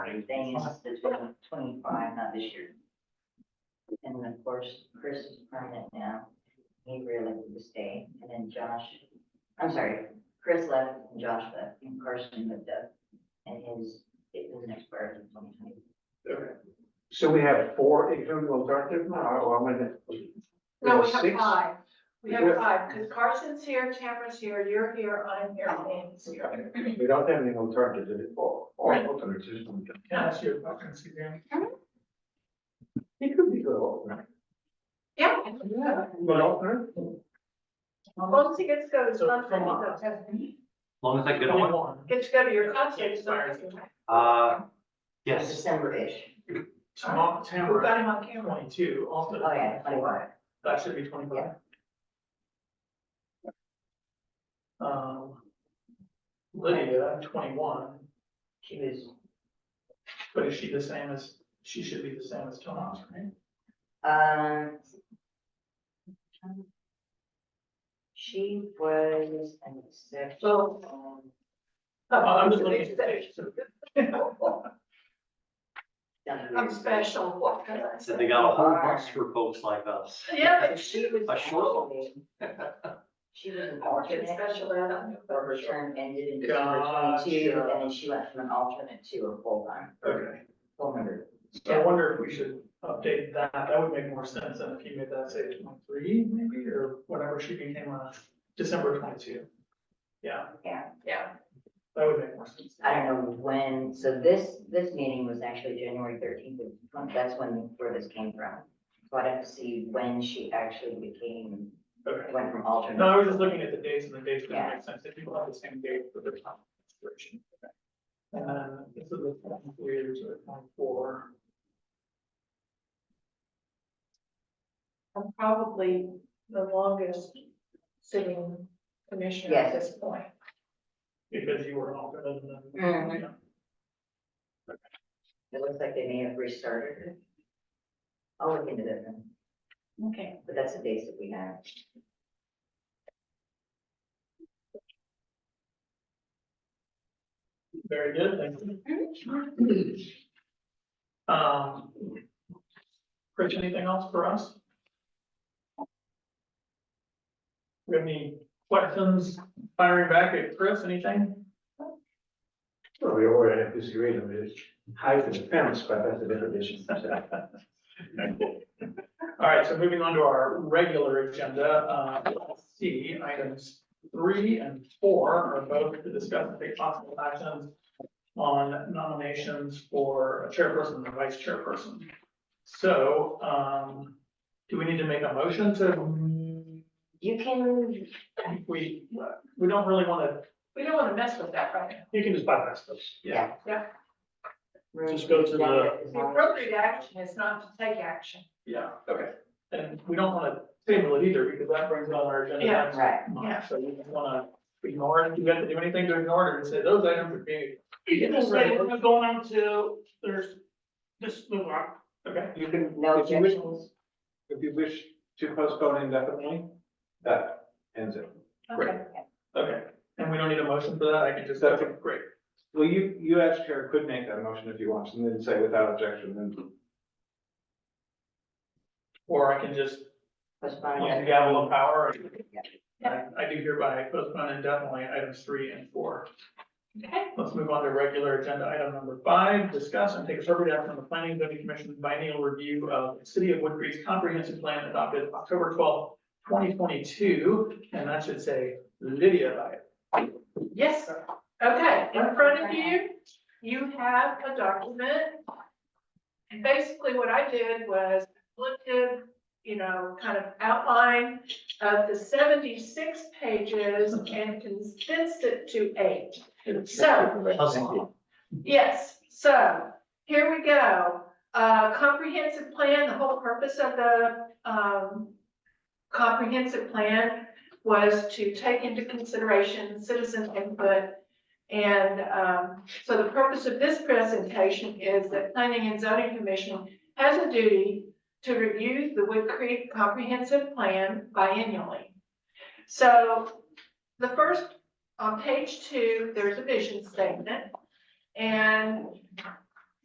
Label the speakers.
Speaker 1: Thing is the twenty, twenty-five, not this year. And of course, Chris is permanent now, he really would stay, and then Josh, I'm sorry, Chris left and Josh left, and Carson moved up. And his, it was next birth in twenty twenty.
Speaker 2: So we have four including alternative now, or I'm gonna.
Speaker 3: No, we have
Speaker 2: six?
Speaker 3: five. We
Speaker 2: Yeah.
Speaker 3: have five, because Carson's here, Tamara's here, you're here, I'm here,
Speaker 4: Oh.
Speaker 3: Dan's here.
Speaker 2: Okay. We don't have any alternatives, it's all, all alternatives. isn't it?
Speaker 4: Yeah, that's your vacancy there.
Speaker 2: It could be good alternate.
Speaker 3: Yeah,
Speaker 2: Yeah. Good alternate.
Speaker 3: once he gets to go to
Speaker 4: So,
Speaker 3: something,
Speaker 4: come on.
Speaker 5: long as I get
Speaker 4: Only
Speaker 5: on,
Speaker 4: one.
Speaker 3: get to go to your concert, so
Speaker 5: uh, yes,
Speaker 1: December-ish,
Speaker 4: Tomorrow,
Speaker 3: we've
Speaker 4: Tamara,
Speaker 3: got him on camera.
Speaker 4: twenty-two, also.
Speaker 1: oh yeah, twenty-five.
Speaker 4: That should be twenty-five. Um, Lydia, twenty-one,
Speaker 1: She was,
Speaker 4: but is she the same as, she should be the same as Tom's, right?
Speaker 1: um. She was an exception.
Speaker 4: Uh, I'm just looking at the page.
Speaker 3: I'm special. what can I
Speaker 5: so
Speaker 3: say?
Speaker 5: they got a whole bunch for folks like us.
Speaker 3: Yeah,
Speaker 1: But
Speaker 3: but she,
Speaker 1: she was.
Speaker 5: A short
Speaker 1: actually- She was an
Speaker 3: I worked in
Speaker 1: alternate,
Speaker 3: special ed, I knew
Speaker 1: but
Speaker 3: her.
Speaker 1: her term ended in December twenty-two,
Speaker 4: Gotcha.
Speaker 1: and then she went from an alternate to a full-time,
Speaker 4: Okay.
Speaker 1: full member.
Speaker 4: So I wonder if we should update that, that would make more sense than if you made that say twenty-three maybe, or whatever she became on December twenty-two. Yeah,
Speaker 3: Yeah,
Speaker 4: that would make more sense.
Speaker 1: I don't know when, so this, this meeting was actually January thirteenth, that's when, where this came from. So I'd have to see when she actually became,
Speaker 4: Okay,
Speaker 1: went from
Speaker 4: no, I
Speaker 1: alternate.
Speaker 4: was just looking at the dates and the dates didn't
Speaker 1: Yeah.
Speaker 4: make sense, if people have the same date for their time expiration. And then this is the twenty-three to the twenty-four,
Speaker 3: I'm probably the longest sitting commissioner at
Speaker 1: Yes.
Speaker 3: this point.
Speaker 4: because you were an alternate and then.
Speaker 1: Mhm. It looks like they may have restarted it. I'll look into that then,
Speaker 3: Okay.
Speaker 1: but that's the dates that we have.
Speaker 4: Very good, thank you. Um, Rich, anything else for us? We have any questions firing back at Chris, anything?
Speaker 2: Well, we already have disagreed on this, high for the fence, but that's a different issue.
Speaker 4: All right, so moving on to our regular agenda, uh, C, items three and four are both to discuss and take possible actions on nominations for a chairperson and vice chairperson. So, um, do we need to make a motion to,
Speaker 1: You can,
Speaker 4: we, we don't really wanna,
Speaker 3: We don't want to mess with that right
Speaker 4: you can just bypass this.
Speaker 1: yeah.
Speaker 3: Yeah.
Speaker 4: Just go to the-
Speaker 3: now. The appropriate action is not to take action.
Speaker 4: Yeah, okay. And we don't wanna table it either, because that brings on our agenda.
Speaker 3: Yeah.
Speaker 4: next
Speaker 1: Right,
Speaker 4: month.
Speaker 3: Yeah.
Speaker 4: So you just wanna ignore it, you have to do anything to ignore it, and say those items are being.
Speaker 6: You can just say, we're going on to, there's, just move on.
Speaker 4: Okay,
Speaker 2: You can,
Speaker 1: no
Speaker 2: if you wish,
Speaker 1: objections,
Speaker 2: if you wish to postpone indefinitely, that ends it.
Speaker 3: Okay.
Speaker 4: okay, and we don't need a motion for that, I can just, okay, great.
Speaker 2: Well, you, you as chair could make that motion if you want, and then say without objection, and
Speaker 4: Or I can just
Speaker 1: postpone
Speaker 4: use the
Speaker 1: that.
Speaker 4: gavel of power, and
Speaker 1: Yeah.
Speaker 4: I I do hereby postpone indefinitely items three and four.
Speaker 3: Okay,
Speaker 4: Let's move on to regular agenda item number five, discuss and take appropriate action on the planning Zoning commission's biennial review of the city of Woodbury's comprehensive plan adopted October twelfth, twenty twenty-two, and that should say Lydia by it.
Speaker 3: yes, okay, in front of you, you have a document. And basically what I did was looked at, you know, kind of outline of the seventy-six pages and condensed it to eight. So,
Speaker 5: Hustle.
Speaker 3: Yes, so here we go. Uh, comprehensive plan, the whole purpose of the, um, comprehensive plan was to take into consideration citizen input. And, um, so the purpose of this presentation is that Planning and Zoning Commission has a duty to review the Wood Creek Comprehensive Plan biennially. So the first, on page two, there's a vision statement. And